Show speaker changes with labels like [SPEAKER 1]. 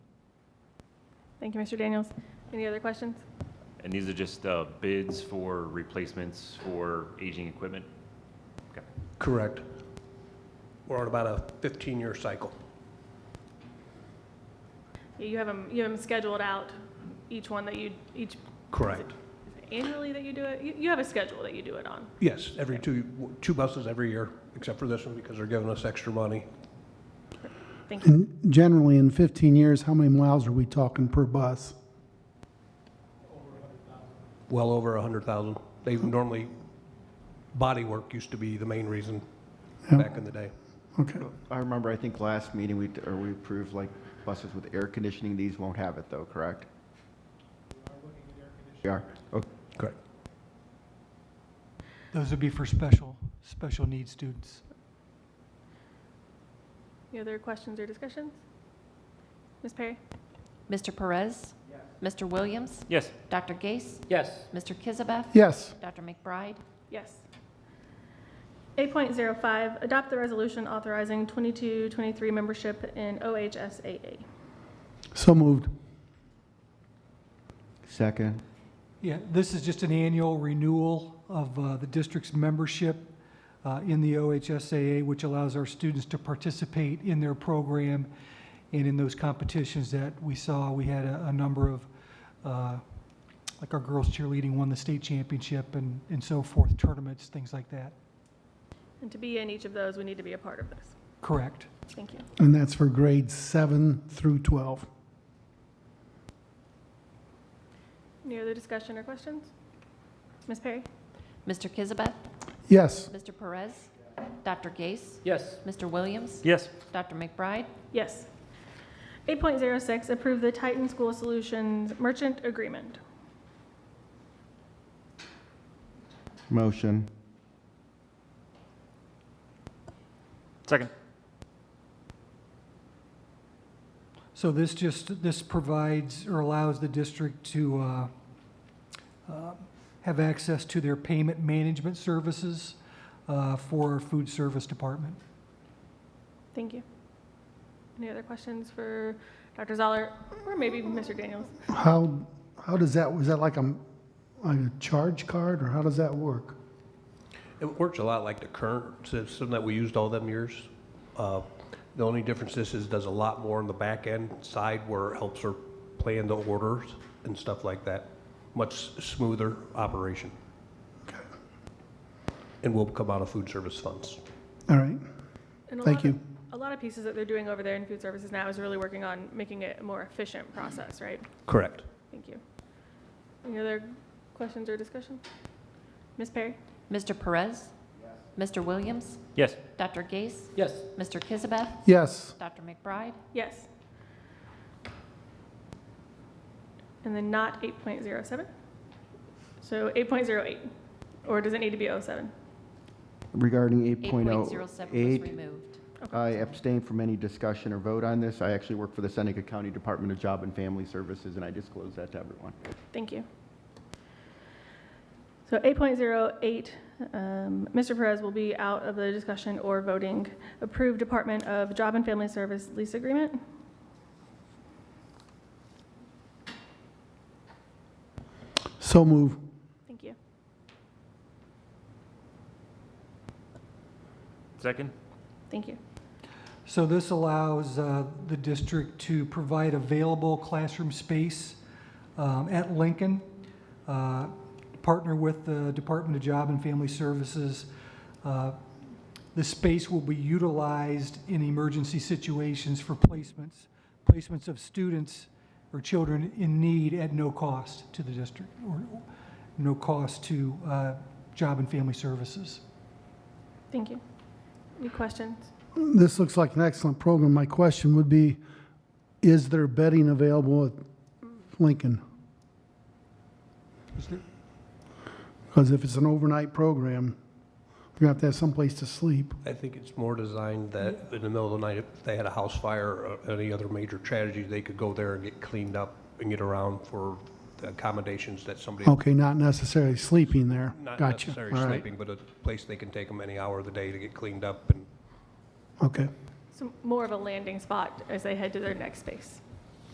[SPEAKER 1] Thank you, Mr. Daniels. Any other questions?
[SPEAKER 2] And these are just uh, bids for replacements for aging equipment? Okay.
[SPEAKER 3] Correct. We're on about a 15-year cycle.
[SPEAKER 1] Yeah, You have them, you have them scheduled out, each one that you, each
[SPEAKER 3] Correct.
[SPEAKER 1] annually that you do it? You, you have a schedule that you do it on.
[SPEAKER 3] Yes, every two, two buses every year, except for this one because they're giving us extra money.
[SPEAKER 1] Thank you.
[SPEAKER 4] And generally, in 15 years, how many miles are we talking per bus?
[SPEAKER 3] Well over 100,000. They normally, body work used to be the main reason
[SPEAKER 4] Yeah.
[SPEAKER 3] back in the day.
[SPEAKER 4] Okay,
[SPEAKER 5] I remember, I think last meeting, we, or we approved like buses with air conditioning. These won't have it though, correct? We are. Okay.
[SPEAKER 3] Correct.
[SPEAKER 6] Those would be for special, special needs students.
[SPEAKER 1] Any other questions or discussions? Ms. Perry?
[SPEAKER 7] Mr. Perez? Mr. Williams?
[SPEAKER 2] Yes,
[SPEAKER 7] Dr. Gase?
[SPEAKER 8] yes,
[SPEAKER 7] Mr. Kizabeth?
[SPEAKER 4] yes,
[SPEAKER 7] Dr. McBride?
[SPEAKER 1] Yes. 8.05, adopt the resolution authorizing 22-23 membership in OHSAA.
[SPEAKER 4] so moved.
[SPEAKER 5] Second,
[SPEAKER 6] Yeah, this is just an annual renewal of uh, the district's membership uh, in the OHSAA, which allows our students to participate in their program and in those competitions that we saw. We had a a number of, uh, like our girls cheerleading won the state championship and and so forth, tournaments, things like that.
[SPEAKER 1] And to be in each of those, we need to be a part of this.
[SPEAKER 6] Correct.
[SPEAKER 1] Thank you.
[SPEAKER 4] And that's for grades 7 through 12.
[SPEAKER 1] Any other discussion or questions? Ms. Perry?
[SPEAKER 7] Mr. Kizabeth?
[SPEAKER 4] Yes,
[SPEAKER 7] Mr. Perez? Dr. Gase?
[SPEAKER 8] yes,
[SPEAKER 7] Mr. Williams?
[SPEAKER 2] yes,
[SPEAKER 7] Dr. McBride?
[SPEAKER 1] Yes. 8.06, approve the Titan School Solutions Merchant Agreement.
[SPEAKER 5] motion,
[SPEAKER 2] second,
[SPEAKER 6] So this just, this provides or allows the district to uh, uh, have access to their payment management services uh, for our food service department.
[SPEAKER 1] Thank you. Any other questions for Dr. Zoller or maybe Mr. Daniels?
[SPEAKER 4] how, how does that, was that like a, like a charge card, or how does that work?
[SPEAKER 3] It works a lot like the current system that we used all them years. Uh, The only difference is, is does a lot more on the back end side where it helps her plan the orders and stuff like that. Much smoother operation. And will come out of food service funds.
[SPEAKER 4] All right,
[SPEAKER 1] And a lot
[SPEAKER 4] thank
[SPEAKER 1] of-
[SPEAKER 4] you.
[SPEAKER 1] A lot of pieces that they're doing over there in food services now is really working on making it a more efficient process, right?
[SPEAKER 3] Correct.
[SPEAKER 1] Thank you. Any other questions or discussion? Ms. Perry?
[SPEAKER 7] Mr. Perez? Mr. Williams?
[SPEAKER 2] yes,
[SPEAKER 7] Dr. Gase?
[SPEAKER 8] yes,
[SPEAKER 7] Mr. Kizabeth?
[SPEAKER 4] Yes,
[SPEAKER 7] Dr. McBride?
[SPEAKER 1] Yes. And then not 8.07? So 8.08, or does it need to be 07?
[SPEAKER 5] regarding eight point oh
[SPEAKER 7] 8.07 was
[SPEAKER 5] eight.
[SPEAKER 7] removed.
[SPEAKER 5] I abstain from any discussion or vote on this. I actually work for the Seneca County Department of Job and Family Services, and I disclose that to everyone.
[SPEAKER 1] Thank you. So 8.08, um, Mr. Perez will be out of the discussion or voting. Approved Department of Job and Family Service lease agreement.
[SPEAKER 4] so move.
[SPEAKER 1] Thank you.
[SPEAKER 2] second,
[SPEAKER 1] Thank you.
[SPEAKER 6] So this allows uh, the district to provide available classroom space um, at Lincoln, uh, partner with the Department of Job and Family Services. Uh, The space will be utilized in emergency situations for placements, placements of students or children in need at no cost to the district, or no cost to uh, Job and Family Services.
[SPEAKER 1] Thank you. Any questions?
[SPEAKER 4] This looks like an excellent program. My question would be, is there bedding available at Lincoln?
[SPEAKER 6] Is there-
[SPEAKER 4] Because if it's an overnight program, you have to have someplace to sleep.
[SPEAKER 3] I think it's more designed that in the middle of the night, if they had a house fire or any other major tragedy, they could go there and get cleaned up and get around for the accommodations that somebody,
[SPEAKER 4] Okay, not necessarily sleeping there.
[SPEAKER 3] not
[SPEAKER 4] Gotcha.
[SPEAKER 3] necessarily
[SPEAKER 4] All right.
[SPEAKER 3] sleeping, but a place they can take them any hour of the day to get cleaned up and
[SPEAKER 4] Okay,
[SPEAKER 1] So more of a landing spot as they head to their next space.